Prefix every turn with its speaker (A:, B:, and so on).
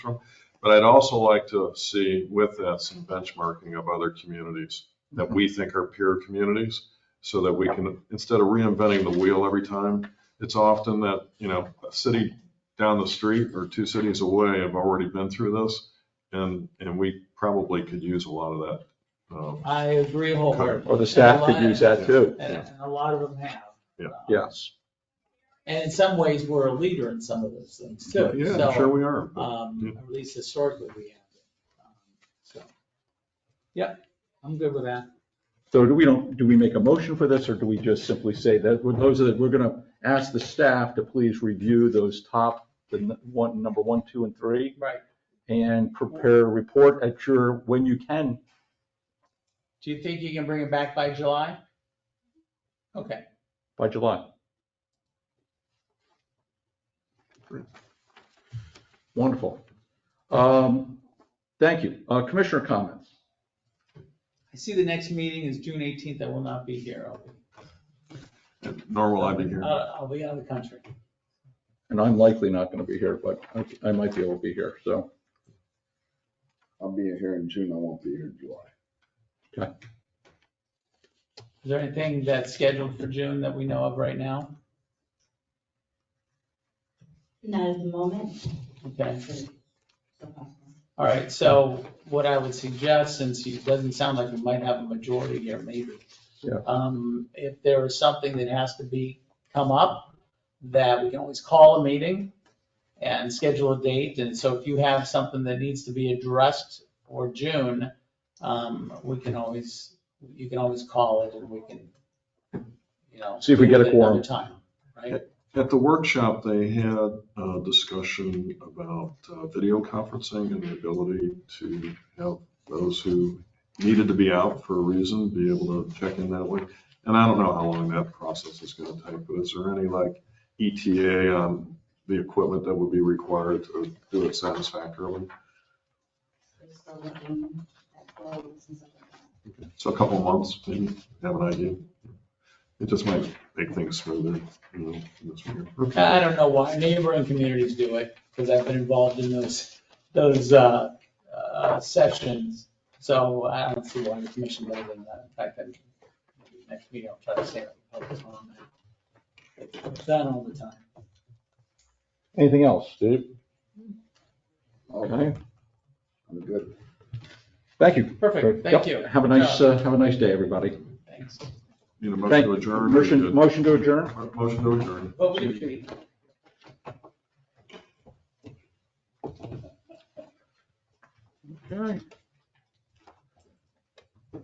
A: from. But I'd also like to see with that some benchmarking of other communities that we think are peer communities. So that we can, instead of reinventing the wheel every time, it's often that, you know, a city down the street or two cities away have already been through this. And, and we probably could use a lot of that. um,
B: I agree wholeheartedly.
C: Well, the staff could use that too.
B: And and a lot of them have. Um,
A: Yeah.
C: Yes.
B: And in some ways, we're a leader in some of those things too.
A: Yeah,
B: So,
A: I'm sure we are. but-
B: um, At least historically, we have. Um, So, Yep, I'm good with that.
C: So do we don't, do we make a motion for this or do we just simply say that, well, those are, the- we're going to ask the staff to please review those top, the n- one, number one, two and three
B: Right.
C: and prepare a report at your, when you can.
B: Do you think you can bring it back by July? Okay,
C: by July. Wonderful. Um, Thank you. Uh, Commissioner comments?
B: I see the next meeting is June 18th. I will not be here. I'll be,
A: Nor will I be here.
B: out- I'll be out of the country.
C: And I'm likely not going to be here, but I- I might be able to be here, so.
D: I'll be here in June, I won't be here in July.
B: Is there anything that's scheduled for June that we know of right now?
E: Not at the moment.
B: Okay.
E: Well,
B: All right, so what I would suggest, since it doesn't sound like we might have a majority here, maybe.
C: Yeah.
B: Um, if there is something that has to be, come up, that we can always call a meeting and schedule a date. And so if you have something that needs to be addressed for June, um, we can always, you can always call it and we can, you know.
C: See if we get a
B: do it another
C: quorum.
B: Time, right?
A: At the workshop, they had a discussion about uh, video conferencing and the ability to have those who needed to be out for a reason, be able to check in that way. And I don't know how long that process is going to take, but is there any like ETA on the equipment that would be required to do it satisfactorily?
E: we're still looking at clothes and stuff like that.
A: So a couple months, maybe, have an idea. It just might make things smoother, you know, this year.
B: I don't know why neighboring communities do it, because I've been involved in those, those uh, uh, sessions. So I don't see why the commission does it. In fact, I'm, next meeting, I'll try to stay focused on that. It's done all the time.
C: Anything else, Steve?
D: Oh,
C: Okay,
D: I'm good.
C: thank you.
B: Perfect, thank you.
C: Yep. Have a nice, uh, have a nice day, everybody.
B: Thanks.
A: Need a motion
C: Thank
A: to adjourn? or you
C: Motion,
A: good?
C: motion to adjourn?
A: Motion to adjourn.
B: What would it be?
C: Okay.